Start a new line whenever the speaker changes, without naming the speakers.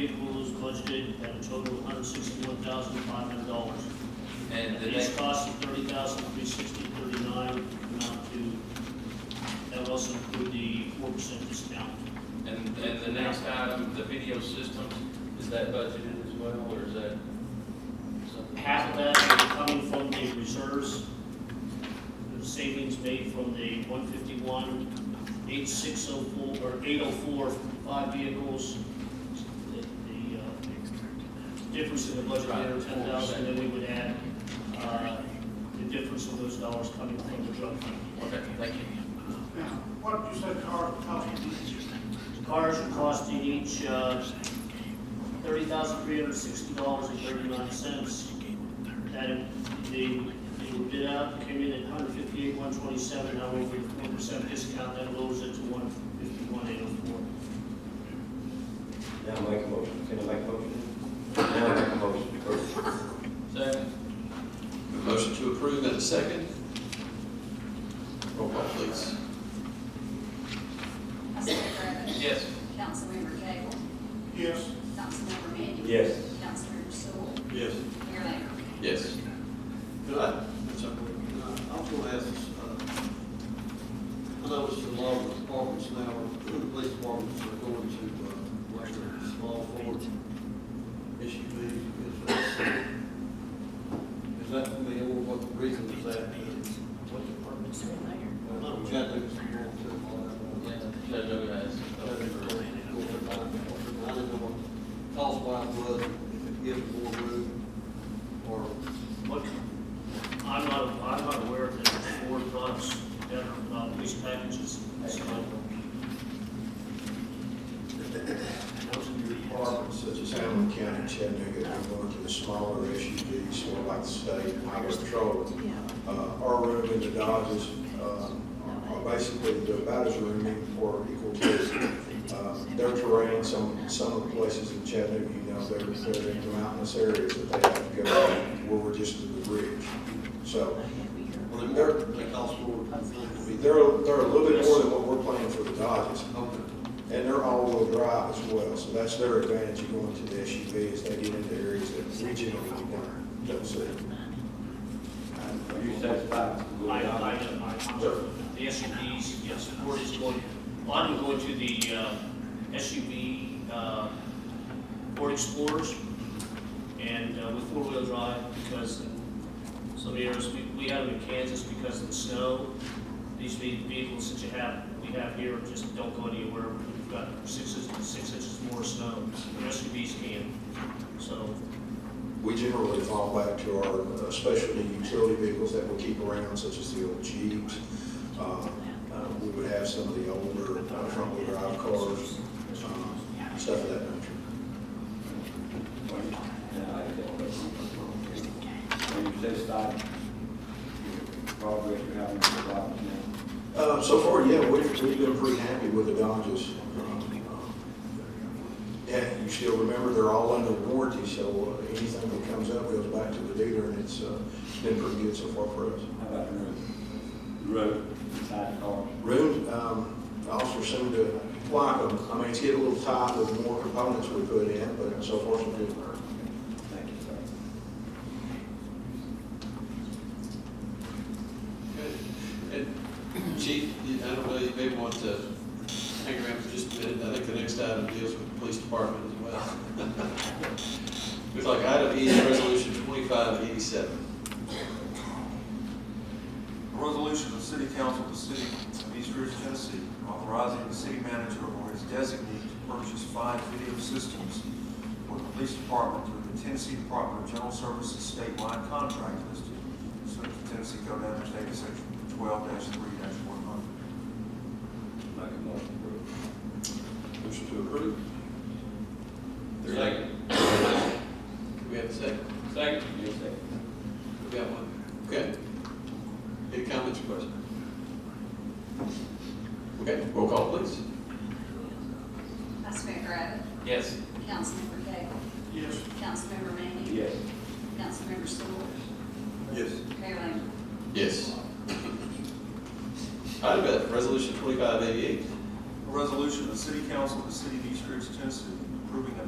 vehicles budgeted at a total of hundred sixty-one thousand five hundred dollars.
And the
These
next,
costs of thirty thousand three sixty thirty-nine amount to, that would also include the four percent discount.
and, and the next item, the video systems, is that budgeted as well, or is that something?
Half of that is coming from the reserves, the savings made from the one fifty-one, eight six oh four, or eight oh four, five vehicles. The, the, uh, difference in the budget there, ten thousand, then we would add, uh, the difference of those dollars coming from the drug fund.
Okay, thank you.
Now, what you said, Carl, cost you
Cars are costing each uh, thirty thousand three hundred sixty dollars and thirty-nine cents. That, in- the, the bid out came in at one hundred fifty-eight, one twenty-seven, now with a four percent discount, that lowers it to one fifty-one, eight oh four.
Now make a motion, can I make a motion? Now make a motion, first.
Second,
A Motion to approve in a second. Roll call, please.
Councilmember Bratton?
yes.
Councilmember Cagle?
yes,
Councilmember Manning?
Yes.
Councilmember Stoll?
Yes.
Mayor Lambert?
Yes.
Could I, I'm sorry, uh, I was gonna ask, this, uh, I know it's a lot of departments now, the police departments are going to, uh, like the small Ford SUVs. Is that, is that, I mean, what the reason is that? What departments are there? Well, Chattanooga's going to, all
Yeah,
that.
Judge Ogun has-
I didn't know what cost wise was, if it gives more room, or
What, I'm not, I'm not aware of that, Ford products, that are, uh, police packages, so
Most of your departments, such as Hamlin County, Chattanooga, are going to the smaller SUVs, more like the state and highway patrol. Uh, Our room in the Dodges uh, are basically the about as roomy or equal to uh, their terrain. Some, some of the places in Chattanooga, you know, they're, they're in the mountainous areas that they have to go to, where we're just to the ridge. So
Well, they more, they cost more. to be
they're,
there.
they're a little bit more than what we're planning for the Dodges.
Okay.
And they're all-wheel drive as well, so that's their advantage of going to the SUV is they get into areas that we generally don't, don't see.
Are you satisfied?
I, I, I, the SUVs, yes, Ford is going, a lot of them going to the uh, SUV, uh, Ford Explorers, and uh, with four-wheel drive, because some years, we, we had them in Kansas because of the snow. These ve- vehicles that you have, we have here just don't go anywhere, we've got six, inches- six inches more snow, The SUVs can, so,
We generally fall back to our uh, specialty utility vehicles that we keep around, such as the old Jeeps. Um, uh, We would have some of the older uh, front-wheel drive cars, um, stuff of that nature.
Are you satisfied? Progress you're having with the Dodgers now?
Uh, So far, yeah, we've, we've been pretty happy with the Dodges. Yeah, you still remember, they're all under warranty, so uh, anything that comes up goes back to the dealer, and it's uh, been pretty good so far for us.
How about the road? The Road, side cars?
Room, um, officer seemed to like them. I mean, it's getting a little tight with more components we put in, but so far, so good.
Thank you, sir.
And Chief, you- I don't know, you may want to hang around for just a minute. I think the next item deals with the police department as well. It's like item E, resolution twenty-five eighty-seven.
A resolution of the City Council of the City of East Ridge, Tennessee, authorizing the city manager or his designee to purchase five video systems for the police department through the Tennessee Department of General Services statewide contract listed, pursuant to Tennessee Code Annex Data Section twelve three one hundred.
Make a motion to approve.
Motion to approve.
Second,
Do we have a second?
second,
Your second.
We got one. Okay. Any comments or questions? Okay, roll call, please.
Vice Mayor Rabbit?
yes.
Councilmember Cagle?
yes.
Councilmember Manning?
Yes.
Councilmember Stoll?
Yes.
Mayor Lambert?
Yes. Item F, resolution twenty-five eighty-eight.
A resolution of the City Council of the City of East Ridge, Tennessee, approving a